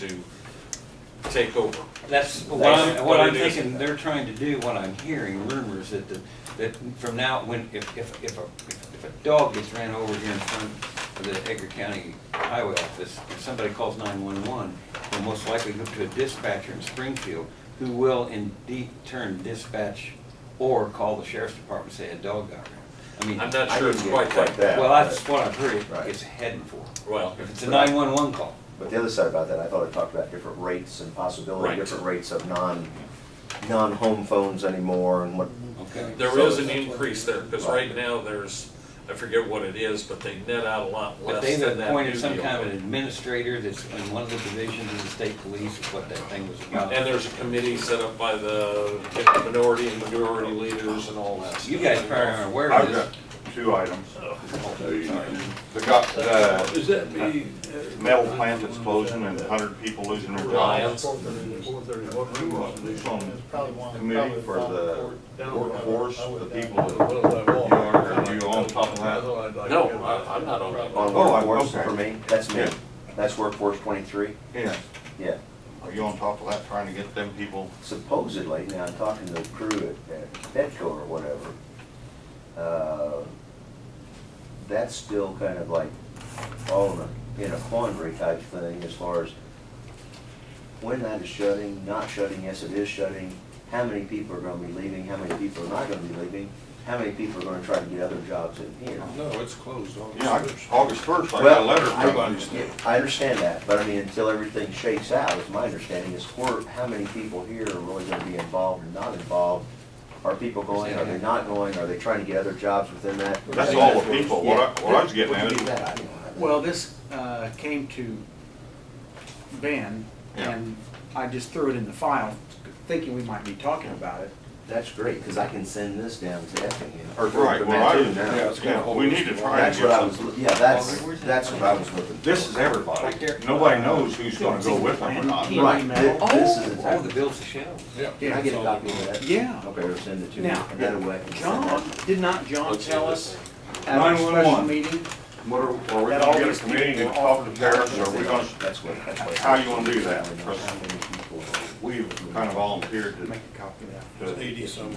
to take over. That's what I'm, what I'm They- they do. thinking, they're trying to do, what I'm hearing rumors that the, that from now, when, if, if, if a, if a dog gets ran over here in front of the Edgar County Highway Office, and somebody calls nine-one-one, they'll most likely go to a dispatcher in Springfield, who will indeed turn dispatch or call the sheriff's department, and say a dog got ran. I mean, I'm not I sure didn't it's get it quite that, like that, well, but- that's what I've heard it- Right. it's heading for. well, If it's a nine-one-one call. But the other side about that, I thought it talked about different rates and possibility, Right. different rates of non, non-home phones anymore and what, Okay. there So is an that's increase there, because right now there's, I forget what it is, but they net out a lot But less they've than that new appointed some kind of an deal. administrator that's in one of the divisions of the state police, is what that thing was about. And there's a committee set up by the minority and majority leaders and all that. You guys probably aren't aware of I've this. got two items. The, got- the Does that be? metal plant explosion and hundred people losing their jobs. Lions. Committee for the workforce, the people that, you are, are you on top of that? No, I- I'm not on that. on Oh, I- workforce okay. for me, that's me. Yeah. That's workforce twenty-three, Yes. yeah. Are you on top of that, trying to get them people? Supposedly, now I'm talking to the crew at, at Petco or whatever, uh, that's still kind of like all in a, in a quandary type thing as far as when that is shutting, not shutting, yes, it is shutting, how many people are gonna be leaving, how many people are not gonna be leaving, how many people are gonna try to get other jobs in here. No, it's closed August Yeah, I- first. August first, I got a Well, letter I- from them. I understand that, but I mean, until everything shakes out, is my understanding, is where, how many people here are really gonna be involved and not involved? Are people going, are they not going, are they trying to get other jobs within that? That's all the people. What I- what I was getting at is- Yeah. What do you mean that? I don't know. Well, this uh, came to Ben, and I just threw it in the file, thinking we might be talking about it. That's great, cause I can send this down to Effingham, or Right, to well, I, Mattoon yeah, now. it's yeah, we need to try and That's what I get was, some. loo- yeah, that's, that's what I was looking. This is everybody. Nobody knows who's gonna go with them or not. Team Right, email. thi- this is Oh, the exactly, bills of shells. Yeah. can I get a copy of that? Yeah. Okay, I'll send it to you, Now, and that way I can send John, that. did not John Let's tell do us this. at our special 911. meeting? What are, are we That gonna all get these a committee to people were talk to parents, or That's are we what- gonna, that's what- that's what- how you wanna do that? How many people are- we've kind of volunteered to, Make a copy of that. It's to Eighty some,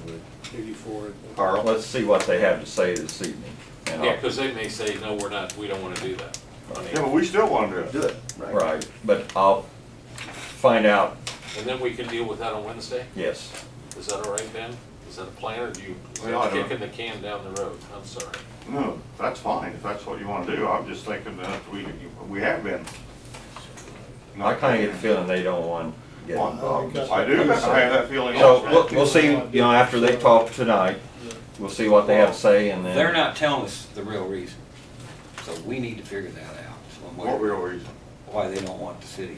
eighty-four. Carl. Let's see what they have to say this evening. And Yeah, I'll- because they may say, no, we're not, we don't want to do that. I mean, Yeah, but we still wanna do it. Do it, right? Right, but I'll find out, And then we can deal with that on Wednesday? yes. Is that all right, Ben? Is that a plan, or do you, is Well, I that don't- kicking the can down the road? I'm sorry. No, that's fine, if that's what you wanna do, I'm just thinking that we, we have been. I kind of get the feeling they don't want to get involved. Well, I do, I have that feeling So we'll, also. we'll see, you know, after they talk tonight, we'll see what they have to say and then. They're not telling us the real reason, so we need to figure that out, some way, What real reason? why they don't want the city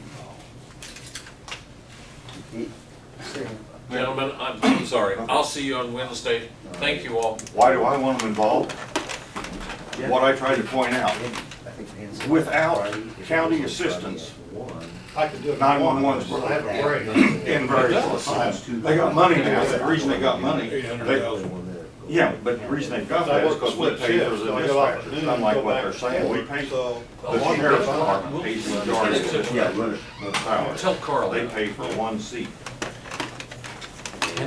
involved. Gentlemen, I'm, I'm sorry. I'll see you on Wednesday. Thank you all. Why do I want them involved? What I tried to point out, Without county assistance. I could do it. 911's were I have a break. in various places. They got money now, the reason they got money, they, yeah, but the reason they got that is because we pay for the dispatchers, unlike what they're saying, we pay, the So. sheriff's department pays the majority of the Yeah, run it. salary. Tell Carl They that. pay for one seat.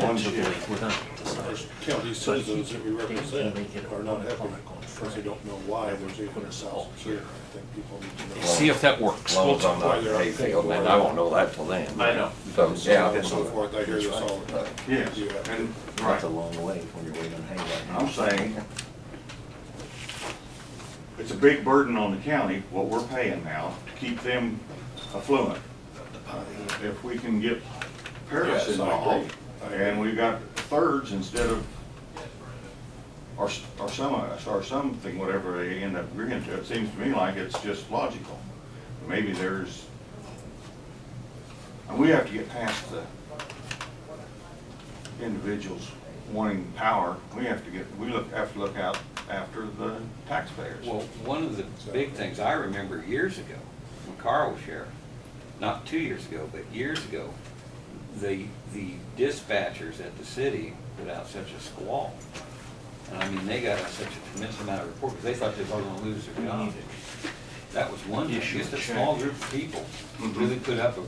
One shift. County citizens that we represent are not happy, because they don't know why there's even a cell here. I think people need to know. See if that As long as I'm not in Hayfield, and I won't know that till then. I know. So, yeah. And so forth, I hear this all the time. Yes, and, right, That's a long way when you're waiting on Hayward. I'm saying, it's a big burden on the county, what we're paying now, to keep them affluent. If we can get Paris Yes, I involved, agree. and we got thirds instead of, or, s- or some of us, or something, whatever they end up agreeing to, it seems to me like it's just logical. Maybe there's, and we have to get past the individuals wanting power, we have to get, we look, have to look out after the taxpayers. Well, one of the big things I remember years ago, when Carl was sheriff, not two years ago, but years ago, the, the dispatchers at the city put out such a squall. And I mean, they got such a tremendous amount of reports, they thought they were gonna lose their job. That was one, issue. just a small group of people really put up a